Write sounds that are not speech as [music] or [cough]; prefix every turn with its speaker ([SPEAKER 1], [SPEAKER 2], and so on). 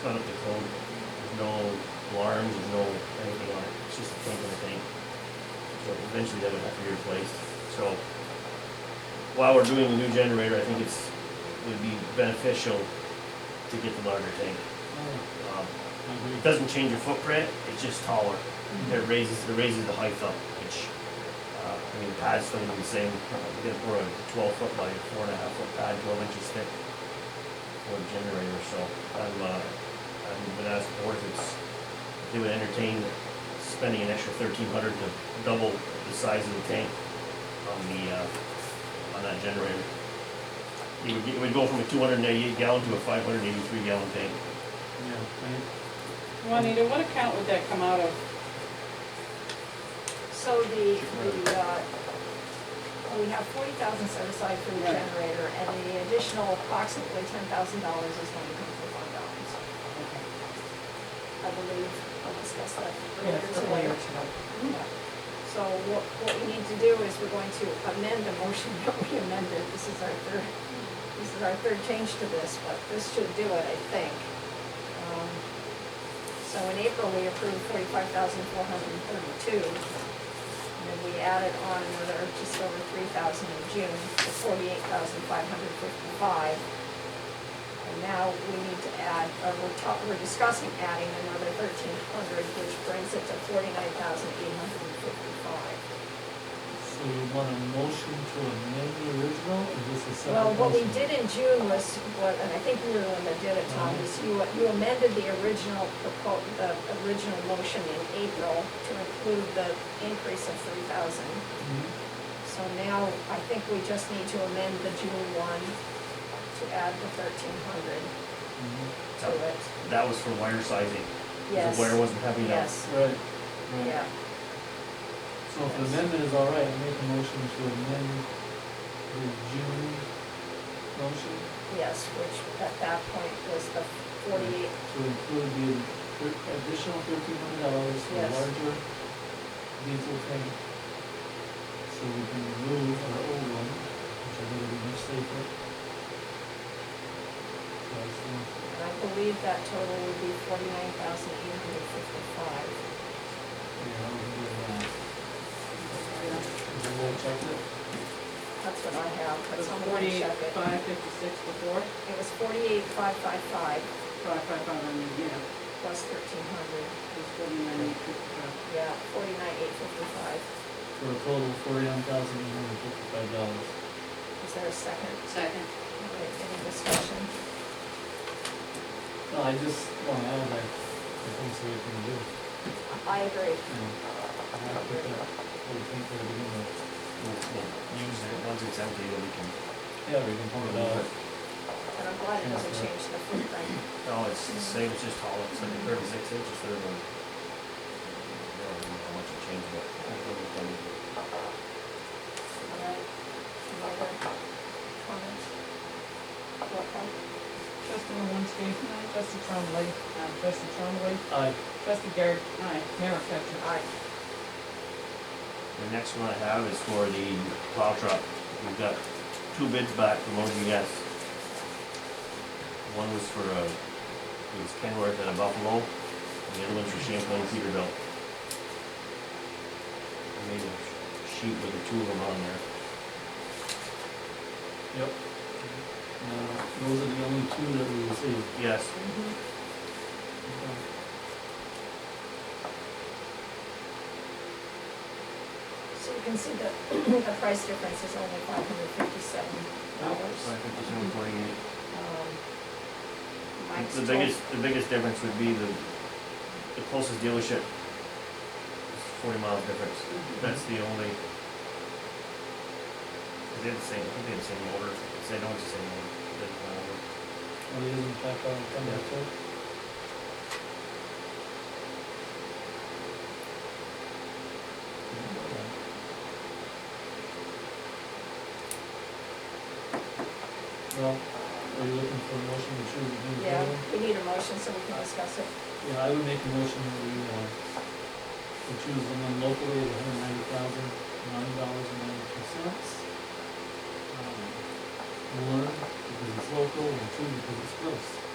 [SPEAKER 1] It's not up to code. There's no alarms, there's no anything on it. It's just a twinkling thing. So eventually that would have to be replaced. So while we're doing the new generator, I think it's, would be beneficial to get the larger tank. Um, It doesn't change your footprint, it's just taller. It raises, it raises the height up, which, uh, I mean, the pad's still gonna be the same. Uh, We got, we're a twelve foot by four and a half foot pad, twelve inches thick for a generator, so I'm, uh, I'm gonna ask the board if it's, if they would entertain spending an extra thirteen hundred to double the size of the tank on the, uh, on that generator. It would, get- it would go from a two hundred and eighty-eight gallon to a five hundred and eighty-three gallon tank.
[SPEAKER 2] Juanita, what account would that come out of?
[SPEAKER 3] So the, the, uh, we have forty thousand set aside for the
[SPEAKER 2] Right.
[SPEAKER 3] generator, and the additional approximately ten thousand dollars is going to come from fund balance. I believe, I'll discuss that later today. Yeah. So what, what we need to do is we're going to amend the motion [laughs] that we amended, this is our third, this is our third change to this, but this should do it, I think. Um, So in April, we approved forty-five thousand four hundred and thirty-two, and then we added on another just over three thousand in June, to forty-eight thousand five hundred fifty-five. And now we need to add, or we're talk, we're discussing adding another thirteen hundred, which brings it to forty-nine thousand eight hundred and fifty-five.
[SPEAKER 4] So you want a motion to amend the original, or just a separate
[SPEAKER 3] Well,
[SPEAKER 4] motion?
[SPEAKER 3] what we did in June was, what, and I think you were the one that did it, Tom, is you, you amended the original propo, the original motion in April to include the increase of three thousand.
[SPEAKER 4] Mhm.
[SPEAKER 3] So now, I think we just need to amend the June one to add the thirteen hundred
[SPEAKER 4] Mhm.
[SPEAKER 3] to
[SPEAKER 1] Oh.
[SPEAKER 3] it.
[SPEAKER 1] That was for wire sizing. 'cause
[SPEAKER 3] Yes.
[SPEAKER 1] The wire wasn't heavy enough.
[SPEAKER 3] Yes,
[SPEAKER 4] Mm-hmm. Right, right.
[SPEAKER 3] yeah.
[SPEAKER 4] So if the amendment is all right, I make a motion to amend the June motion
[SPEAKER 3] Yes, which at that point was the forty-eight,
[SPEAKER 4] to include the thir- additional thirteen hundred dollars for
[SPEAKER 3] Yes.
[SPEAKER 4] larger diesel tank. So we can remove our old one, which I think will be much safer. So I think
[SPEAKER 3] and I believe that total would be forty-nine thousand eight hundred fifty-five.
[SPEAKER 4] we are over there now. Did you all check it?
[SPEAKER 3] That's what I have, but
[SPEAKER 2] Was
[SPEAKER 3] someone can check it.
[SPEAKER 2] Forty-five, fifty-six before,
[SPEAKER 3] It was forty-eight, five, five, five,
[SPEAKER 2] five, five, five, I mean, yeah,
[SPEAKER 3] plus thirteen hundred,
[SPEAKER 2] it was forty-nine, eight, fifty-five.
[SPEAKER 3] yeah, forty-nine, eight fifty-five.
[SPEAKER 4] For a total of forty-nine thousand eight hundred fifty-five dollars.
[SPEAKER 3] Is there a second?
[SPEAKER 2] Second.
[SPEAKER 3] Okay, Any discussion?
[SPEAKER 4] No, I just, no, I was like, I think so we can do. it.
[SPEAKER 3] I agree.
[SPEAKER 4] You know, I have to think, we think we're doing it.
[SPEAKER 1] We'll, we'll use it, once it's empty, then we can,
[SPEAKER 4] Yeah, we can pull it out.
[SPEAKER 3] And I'm glad it doesn't change the footprint.
[SPEAKER 1] no, oh, it's
[SPEAKER 3] Mm-hmm.
[SPEAKER 1] the same, it's just taller, it's like thirty-six inches, thirty. I don't know how much it changed, but I think it was done.
[SPEAKER 3] All right. Any other comments? Roll call.
[SPEAKER 5] Trustee Malinsky. Trustee Trombley. Trustee Trombley.
[SPEAKER 4] Aye,
[SPEAKER 5] Trustee Garrett. Aye. Mayor McFetrich.
[SPEAKER 3] Aye.
[SPEAKER 1] The next one I have is for the plow truck. We've got two bids back from OGS. One was for, uh, it was Kenworth and a Buffalo, and the other one's for Champlain Peterbilt. I made a sheet with the two of them on there.
[SPEAKER 4] yep. Uh, those are the only two that we received.
[SPEAKER 1] Yes,
[SPEAKER 3] So you can see that [clears throat] the price difference is only five hundred fifty-seven dollars. Um,
[SPEAKER 1] five fifty-seven twenty-eight.
[SPEAKER 3] Mike's
[SPEAKER 1] The
[SPEAKER 3] told-
[SPEAKER 1] biggest, the biggest difference would be the, the closest dealership is forty miles difference. That's the only. They have the same, I think they have the same order. They don't have the same uh, order. They have one order.
[SPEAKER 4] Are we using check on Thunder too? Well, are you looking for a motion to choose between the
[SPEAKER 3] uh, Yeah,
[SPEAKER 4] two?
[SPEAKER 1] Mm-hmm.
[SPEAKER 3] we need a motion so we can discuss it.
[SPEAKER 4] Yeah, I would make a motion that we, uh, we choose the one locally at hundred ninety thousand, nine dollars and ninety-two cents. Um, One, because it's local, and two, because it's close.